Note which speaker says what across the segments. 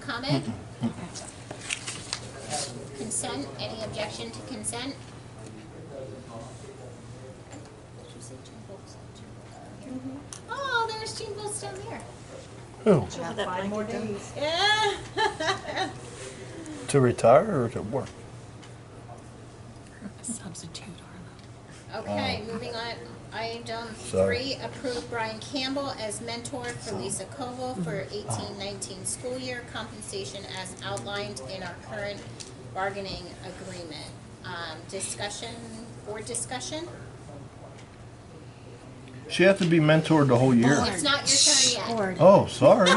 Speaker 1: comment? Consent, any objection to consent? Did you say two votes? Two votes down here. Oh, there's two votes down there.
Speaker 2: Who?
Speaker 3: About five more days.
Speaker 1: Yeah.
Speaker 2: To retire or to work?
Speaker 4: Substitute, Arlo.
Speaker 1: Okay, moving on, item
Speaker 2: Sorry.
Speaker 1: three, approve Brian Campbell as mentor for Lisa Koval for eighteen nineteen school year compensation as outlined in our current bargaining agreement. Um, discussion, board discussion?
Speaker 2: She has to be mentored the whole
Speaker 3: Oh,
Speaker 2: year.
Speaker 1: It's not your turn yet.
Speaker 3: Board,
Speaker 2: Oh, sorry.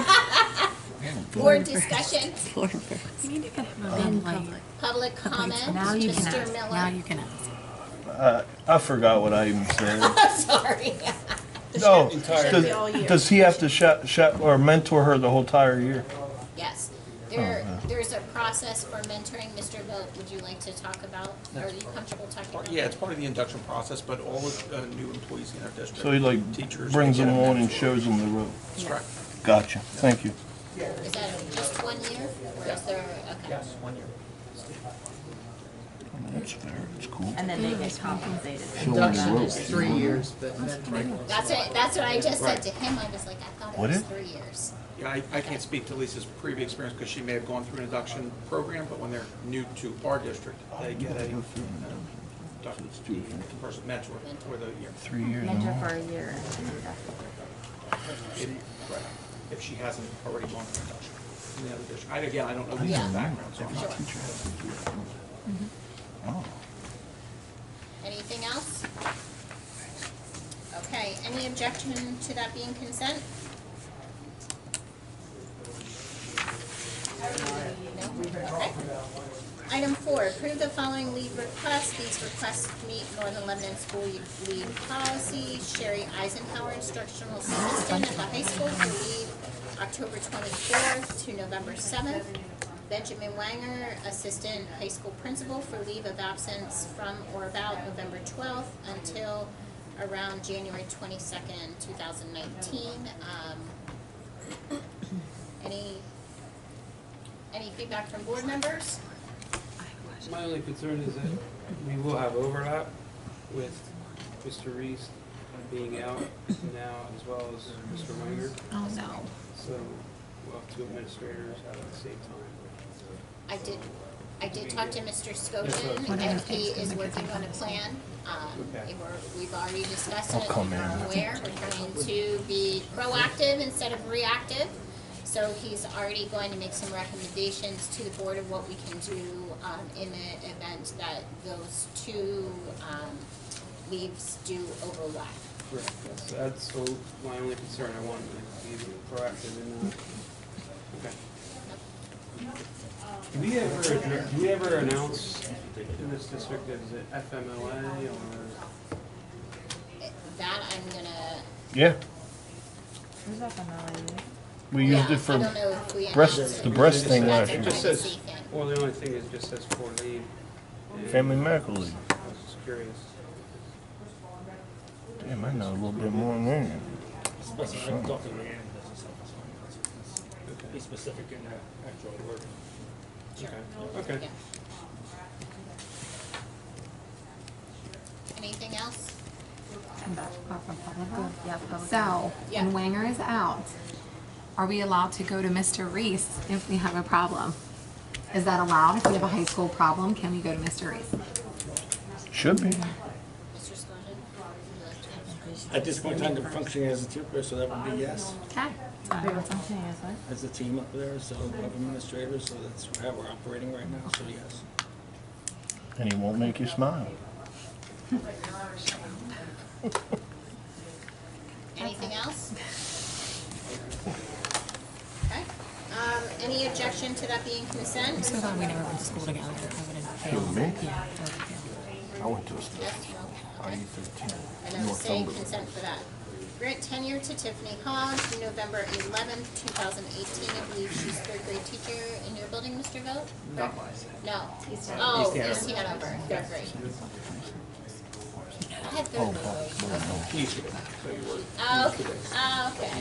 Speaker 1: Board discussion,
Speaker 3: board first.
Speaker 4: We need to get him a bed light.
Speaker 1: public comment,
Speaker 4: Now you can
Speaker 1: Mr.
Speaker 4: ask, now
Speaker 1: Miller.
Speaker 4: you can ask.
Speaker 2: I, I forgot what I even said.
Speaker 1: Sorry.
Speaker 2: No,
Speaker 5: Entire
Speaker 2: does-
Speaker 5: year.
Speaker 3: all year.
Speaker 2: does he have to shut, shut, or mentor her the whole entire year?
Speaker 1: Yes, there, there's a process for mentoring, Mr. Vogt, would you like to talk about, are you comfortable talking about?
Speaker 5: Part- Yeah, it's part of the induction process, but all the uh, new employees in our district.
Speaker 2: So he like
Speaker 5: teachers,
Speaker 2: brings
Speaker 5: they
Speaker 2: them
Speaker 5: get a
Speaker 2: on and
Speaker 5: mentor.
Speaker 2: shows them the road.
Speaker 5: That's correct.
Speaker 2: Gotcha, thank you.
Speaker 1: Is that just one year, or is there, okay.
Speaker 5: Yes, one year.
Speaker 2: That's fair, it's cool.
Speaker 3: And then they get compensated.
Speaker 6: Induction is three years, but mentoring.
Speaker 1: That's what, that's what I just said to him, I was like, I thought it
Speaker 2: What
Speaker 1: was
Speaker 2: is-
Speaker 1: three years.
Speaker 5: Yeah, I, I can't speak to Lisa's previous experience because she may have gone through an induction program, but when they're new to our district, they get a um, induction person mentor for the year.
Speaker 2: Three years.
Speaker 3: Mentor for a year.
Speaker 5: If- right, If she hasn't already gone through induction in the other district. And again, I don't know Lisa's background, so I'm not.
Speaker 3: Mm-hmm.
Speaker 2: Oh.
Speaker 1: Anything else? Okay, any objection to that being consent? No? Okay. Item four, approve the following leave requests. These requests meet Northern Lebanon School Leave Policy. Sherry Eisenhower, instructional assistant at the high school, for leave October twenty-fourth to November seventh. Benjamin Wanger, assistant high school principal, for leave of absence from or about November twelfth until around January twenty-second, two thousand nineteen. Um, Any, any feedback from board members?
Speaker 7: My only concern is that we will have overlap with Mr. Reese being out now as well as Mr. Wanger.
Speaker 4: Oh, no.
Speaker 7: So we'll have two administrators out at the same time.
Speaker 1: I did, I did talk to Mr. Skojan,
Speaker 4: Whatever
Speaker 1: and he
Speaker 4: things
Speaker 1: is
Speaker 4: that we
Speaker 1: working
Speaker 4: think
Speaker 1: on a
Speaker 4: is-
Speaker 1: plan. Um,
Speaker 7: Okay.
Speaker 1: and we're, we've already discussed it,
Speaker 2: come
Speaker 1: and we're
Speaker 2: in.
Speaker 1: aware, we're trying to be proactive instead of reactive. So he's already going to make some recommendations to the board of what we can do, um, in the event that those two, um, leaves do overlap.
Speaker 7: Correct. That's, that's all my only concern. I want to be proactive and, uh, okay. Do we ever, addre- do we ever announce in this district that is it FMLA or?
Speaker 1: That I'm gonna,
Speaker 2: Yeah,
Speaker 3: Who's that from, Melanie?
Speaker 2: we
Speaker 1: yeah, I
Speaker 2: used it
Speaker 1: don't
Speaker 2: for
Speaker 1: know if we announced
Speaker 2: breast,
Speaker 1: it.
Speaker 2: the breast thing last
Speaker 1: That's a
Speaker 2: year.
Speaker 7: Just says-
Speaker 1: privacy thing.
Speaker 7: Well, the only thing is it just says for leave. and-
Speaker 2: Family medical leave.
Speaker 7: I was just curious.
Speaker 2: Damn, I know a little bit more than that.
Speaker 8: Specific, Dr. Leanne doesn't say this one. Be specific in the actual word.
Speaker 7: Sure. Okay.
Speaker 1: Yeah. Anything else?
Speaker 4: Come back up from public works.
Speaker 3: Yeah, public.
Speaker 4: Uh-huh. So,
Speaker 1: Yeah.
Speaker 4: when Wanger is out, are we allowed to go to Mr. Reese if we have a problem? Is that allowed? If we have a high school problem, can we go to Mr. Reese?
Speaker 2: Should be.
Speaker 1: Mr. Skogan? would you like to answer?
Speaker 8: At this point in time, they're functioning as a two-person, so that would be yes,
Speaker 4: Okay.
Speaker 3: Wait, what's on today, is it?
Speaker 8: as a team up there, so of administrators, so that's how we're operating right now, so yes.
Speaker 2: And he won't make you smile.
Speaker 1: Anything else? Okay. Um, any objection to that being consent?
Speaker 4: So glad we never went to school together. I would have failed.
Speaker 2: Who, me?
Speaker 4: Yeah, I would have
Speaker 2: I went to a school.
Speaker 1: Yes, no.
Speaker 2: I E thirteen.
Speaker 1: And I'm saying consent for that. Grant tenure to Tiffany Hodge, November eleventh, two thousand eighteen. I believe she's third grade teacher in your building, Mr. Vogt?
Speaker 5: Not mine.
Speaker 1: No. Oh, East Hanover, third grade. I had third grade.
Speaker 5: Easier, so you were
Speaker 1: Oh, okay, oh, okay.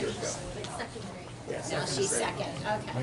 Speaker 1: No, she's second, okay.